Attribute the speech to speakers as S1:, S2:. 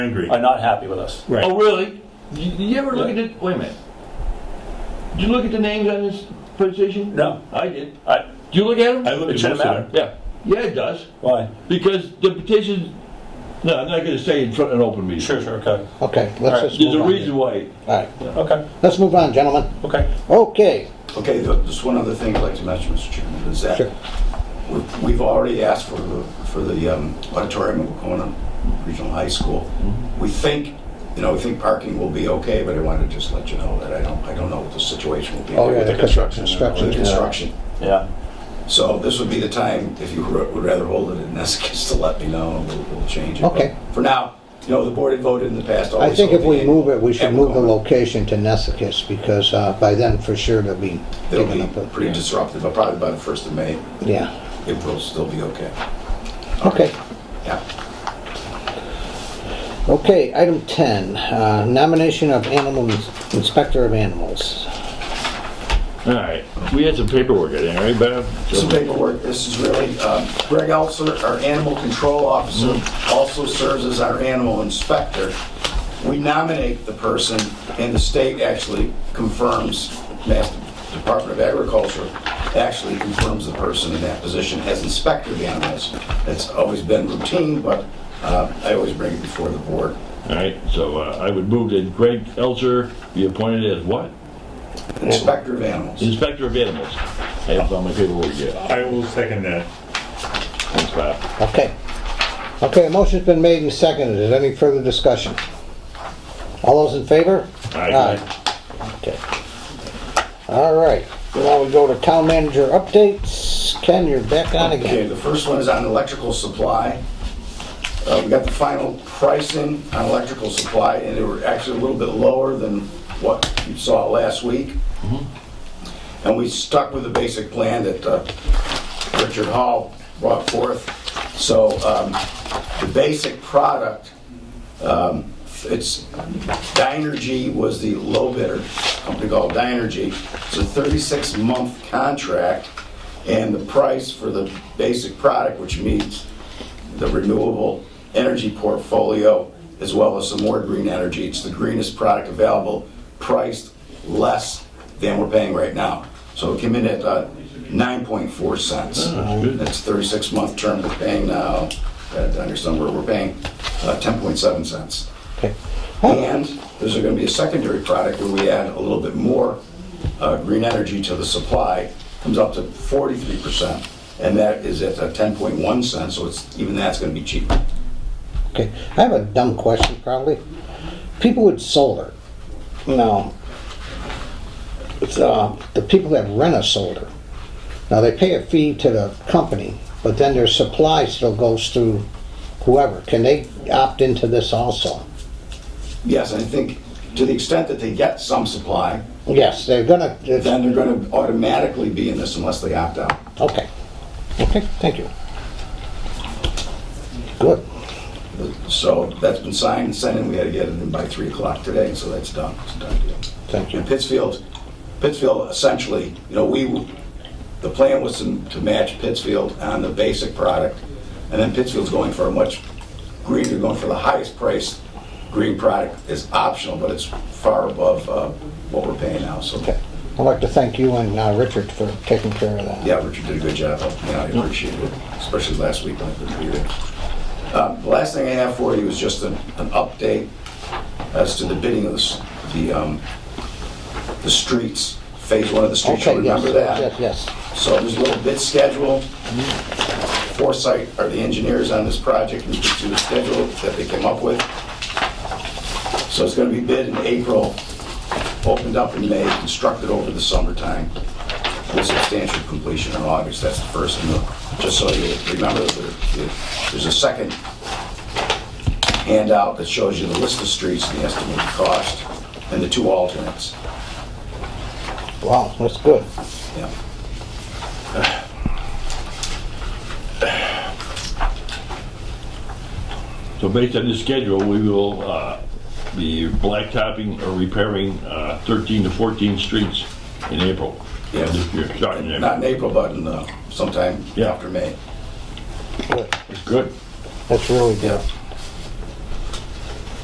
S1: angry.
S2: are not happy with us.
S1: Right.
S3: Oh, really? You, you ever look at it? Wait a minute. Did you look at the names on this presentation?
S2: No.
S3: I did.
S2: I,
S3: Do you look at
S1: I look
S3: them?
S2: it
S1: at most
S2: shouldn't matter.
S1: of them.
S3: Yeah. Yeah, it does.
S2: Why?
S3: Because the petition, no, I'm not going to say in front of an open meeting.
S2: Sure, sure, okay.
S4: Okay,
S2: Alright,
S4: let's just
S3: There's
S4: move
S3: a
S4: on.
S3: reason why.
S4: All right,
S2: Okay,
S4: let's move on, gentlemen.
S2: okay.
S4: Okay,
S5: Okay, th- just one other thing I'd like to mention, Mr. Chairman, is that
S4: Sure.
S5: we've- we've already asked for the, for the um, auditorium at Wacona Regional High School.
S4: Mm-hmm.
S5: We think, you know, we think parking will be okay, but I want to just let you know that I don't, I don't know what the situation will be
S4: Oh,
S5: with
S4: yeah.
S5: the
S2: The construction.
S4: Construction.
S5: construction.
S2: Yeah,
S5: So this would be the time, if you would would rather hold it in Essex, to let me know, and we'll, we'll change it.
S4: Okay.
S5: But For now, you know, the board had voted in the past
S4: I
S5: always.
S4: think if
S5: hold
S4: we
S5: the-
S4: move it, we
S5: at
S4: should move the
S5: Wacona.
S4: location to Nessus because uh, by then for sure they'll be
S5: It'll
S4: giving up.
S5: be
S4: a-
S5: pretty disruptive, but probably by the first of May,
S4: Yeah,
S5: it will still be okay.
S4: okay.
S5: Yeah.
S4: Okay, item 10, uh, nomination of animal, ins- inspector of animals.
S3: All right. We had some paperwork in there, right, Bob?
S5: Some paperwork, this is really, um, Greg Elser, our animal control officer, also serves as our animal inspector. We nominate the person, and the state actually confirms, Mass Department of Agriculture actually confirms the person in that position as inspector of animals. It's always been routine, but uh, I always bring it before the board.
S3: All right, so uh, I would move that Greg Elser be appointed as what?
S5: Inspector of animals.
S3: Inspector of Animals. I haven't found my paperwork yet.
S1: I will second that.
S3: Thanks, Bob.
S4: Okay. Okay, a motion's been made and seconded. Is there any further discussion? All those in favor?
S3: Aye.
S4: Okay. All right, now we go to town manager updates. Ken, you're back on
S5: Okay,
S4: again.
S5: the first one is on electrical supply. Uh, We got the final pricing on electrical supply, and they were actually a little bit lower than what you saw last week. And we stuck with the basic plan that uh, Richard Hall brought forth. So um, the basic product, um, it's, Dynergy was the low bidder, company called Dynergy. It's a 36-month contract, and the price for the basic product, which means the renewable energy portfolio, as well as some more green energy. It's the greenest product available, priced less than we're paying right now. So it came in at uh, 9.4 cents. That's 36-month term we're paying now, uh, under somewhere, we're paying uh, 10.7 cents.
S4: Okay.
S5: And there's going to be a secondary product where we add a little bit more uh, green energy to the supply, comes up to 43%, and that is at uh, 10.1 cents, so it's, even that's going to be cheaper.
S4: Okay, I have a dumb question probably. People with solar, now, it's, uh, the people that rent a solar, now they pay a fee to the company, but then their supply still goes through whoever. Can they opt into this also?
S5: Yes, I think to the extent that they get some supply,
S4: Yes, they're gonna,
S5: then they're going to automatically be in this unless they opt out.
S4: okay. Okay, thank you. Good.
S5: So that's been signed and sent in, we had to get it in by 3 o'clock today, so that's done, it's a done deal.
S4: Thank you.
S5: And Pittsfield, Pittsfield essentially, you know, we, the plan was to to match Pittsfield on the basic product, and then Pittsfield's going for a much greener, going for the highest price. Green product is optional, but it's far above uh, what we're paying now, so,
S4: Okay. I'd like to thank you and uh, Richard for taking care of that.
S5: yeah, Richard did a good job, yeah, I appreciate it, especially last week when I couldn't be there. Uh, The last thing I have for you is just an, an update as to the bidding of the, s- the, um, the streets, phase one of the streets, you
S4: Okay, yes,
S5: remember
S4: yes,
S5: that?
S4: yes.
S5: So there's a little bid schedule. Foresight are the engineers on this project, and to the schedule that they came up with. So it's gonna be bid in April, opened up in May, constructed over the summertime, with substantial completion in August, that's the first one. Just so you remember, there- there's a second handout that shows you the list of streets and the estimated cost, and the two alternates.
S4: Wow, that's good.
S5: Yeah.
S3: So based on this schedule, we will uh, be blacktopping or repairing uh, 13 to 14 streets in April.
S5: Yes.
S3: This year, starting in
S5: Not
S3: April.
S5: in April, but in uh, sometime
S3: Yeah.
S5: after May.
S4: Good.
S3: It's good.
S4: That's really good.